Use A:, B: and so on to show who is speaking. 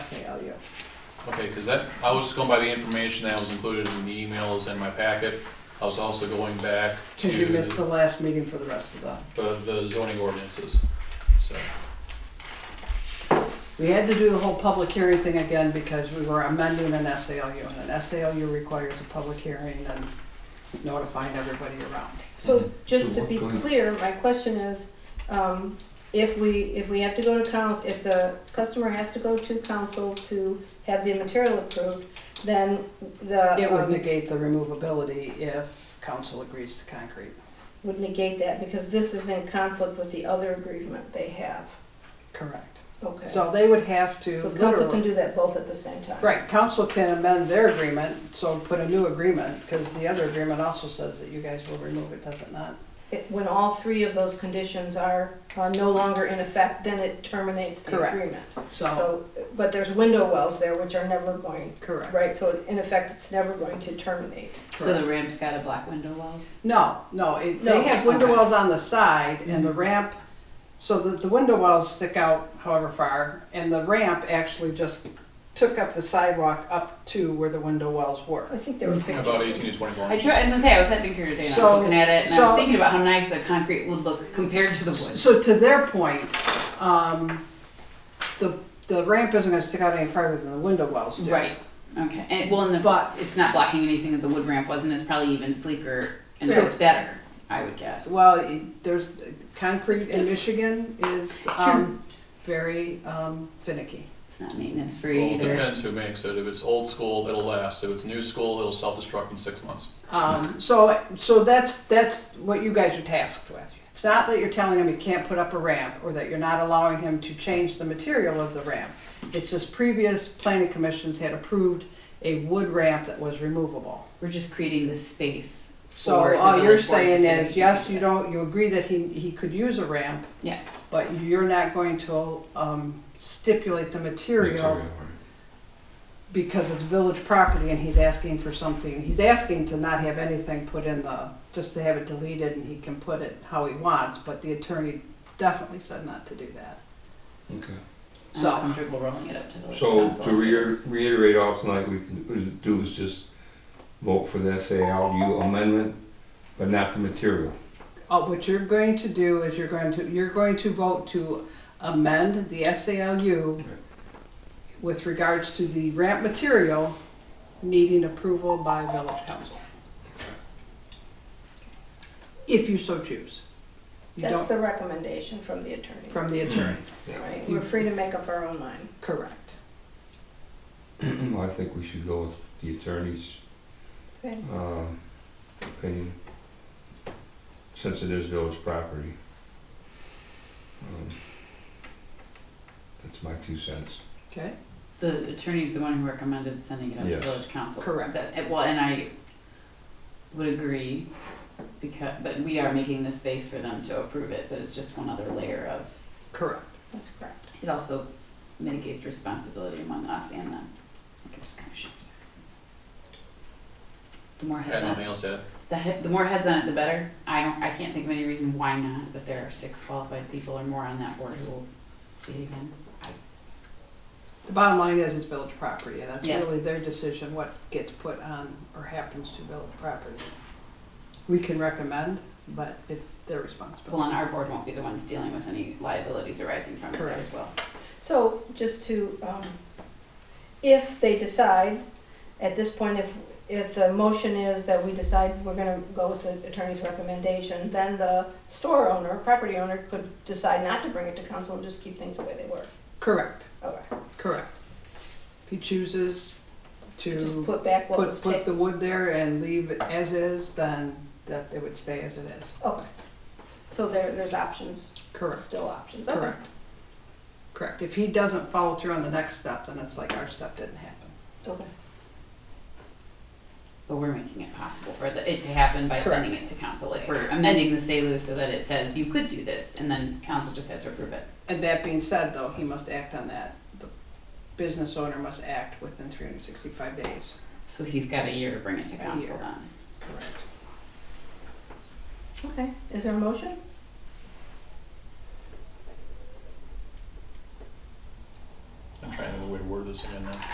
A: tell you.
B: Okay, because that, I was just going by the information that was included in the emails and my packet. I was also going back
A: Because you missed
B: to
A: the last meeting for the rest of the,
B: the the zoning ordinances, so.
A: we had to do the whole public hearing thing again because we were amending an SALU. And an SALU requires a public hearing and notifying everybody around.
B: Mhm.
C: So just
D: Mm-hmm. So
C: to be
D: what kind-
C: clear, my question is, um, if we, if we have to go to coun, if the customer has to go to council to have the material approved, then the.
A: It would
C: um,
A: negate the removability if council agrees to concrete.
C: Would negate that because this is in conflict with the other agreement they have.
A: Correct.
C: Okay. So
A: So they would have to
C: council can
A: literally.
C: do that both at the same time.
A: Right, council can amend their agreement, so put a new agreement, because the other agreement also says that you guys will remove it, does it not?
C: It- When all three of those conditions are uh, no longer in effect, then it terminates the
A: Correct. Uh-huh.
C: agreement.
A: So,
C: So, but there's window wells there which are never going,
A: correct.
C: right? So in effect, it's never going to terminate.
E: So the ramp's got a black window wells?
A: No, no, it,
C: No,
A: they have window
E: okay. Mm-hmm.
A: wells on the side and the ramp, so that the window wells stick out however far, and the ramp actually just took up the sidewalk up to where the window wells
C: I
A: were.
C: think there were pictures.
B: About 18 to 24
E: I
B: inches.
E: try, as I say, I was at Big Here today and I
A: So-
E: was looking at it and I
A: so-
E: was thinking about how nice the concrete would look compared to the wood.
A: So to their point, um, the, the ramp isn't gonna stick out any farther than the window wells do.
E: Right, okay, and well, and the,
A: But-
E: it's not blocking anything that the wood ramp wasn't, it's probably even sleeker and
A: Yeah.
E: it's better, I would guess.
A: Well, it- there's, concrete in Michigan is, um, very, um, finicky.
E: It's not maintenance
B: Well,
E: free
B: it
E: either.
B: depends who makes it. If it's old school, it'll last. If it's new school, it'll self-destruct in six months.
A: Um, so, so that's, that's what you guys are tasked with. It's not that you're telling him he can't put up a ramp or that you're not allowing him to change the material of the ramp. It's just previous planning commissions had approved a wood ramp that was removable.
E: We're just creating this space.
A: So
E: for the
A: all you're
E: village board to
A: saying
E: say
A: is,
E: they
A: yes,
E: can
A: you
E: do that.
A: don't, you agree that he, he could use a ramp,
E: Yeah,
A: but you're not going to, um, stipulate the material because it's village property and he's asking for something, he's asking to not have anything put in the, just to have it deleted and he can put it how he wants, but the attorney definitely said not to do that.
D: Okay.
E: I'm
A: So-
E: comfortable rolling it up to the.
D: So
E: council.
D: to reiter- reiterate all tonight, we can we can do is just vote for the SALU amendment, but not the material.
A: Uh, what you're going to do is you're going to, you're going to vote to amend the SALU with regards to the ramp material needing approval by village council. If you so choose. You
C: That's
A: don't,
C: the recommendation from the attorney,
A: from the attorney,
C: right? We're free to make up our own mind.
A: correct.
D: I think we should go with the attorney's
C: Okay.
D: um, opinion, since it is village property. Um, That's my two cents.
A: Okay,
E: The attorney's the one who recommended sending it up to
D: Yes.
E: village council.
A: Correct.
E: That, and- well, and I would agree, because, but we are making the space for them to approve it, but it's just one other layer of,
A: correct.
C: That's correct.
E: it also mitigates responsibility among us and them. Like, it just kinda shifts. The more
B: Had
E: heads on,
B: nothing else to add.
E: the he- the more heads on it, the better. I don't, I can't think of any reason why not, but there are six qualified people or more on that board who will see it again.
A: The bottom line is it's village property, and that's
E: Yeah.
A: really their decision, what gets put on or happens to village property. We can recommend, but it's their
E: Well,
A: responsibility.
E: and our board won't be the ones dealing with any liabilities arising from it
A: Correct.
E: as well.
C: So just to, um, if they decide, at this point, if, if the motion is that we decide we're gonna go with the attorney's recommendation, then the store owner, property owner could decide not to bring it to council and just keep things the way they were.
A: Correct,
C: Okay.
A: correct. If he chooses
C: Just
A: to
C: put back what was
A: put, put
C: taken.
A: the wood there and leave it as is, then that it would stay as it is.
C: Okay. So there, there's options,
A: Correct,
C: still options. Okay.
A: correct. Correct. If he doesn't follow through on the next step, then it's like our step didn't happen.
C: Okay.
E: But we're making it possible for the, it to happen by
A: Correct.
E: sending it to council, like we're amending the SALU so that it says you could do this, and then council just has to approve it.
A: And that being said, though, he must act on that. The business owner must act within three hundred sixty-five days.
E: So he's got a year to bring it to
A: A
E: council
A: year.
E: then.
A: Correct.
C: Okay, is there a motion?
B: I'm trying to remember the way to word this. this agenda.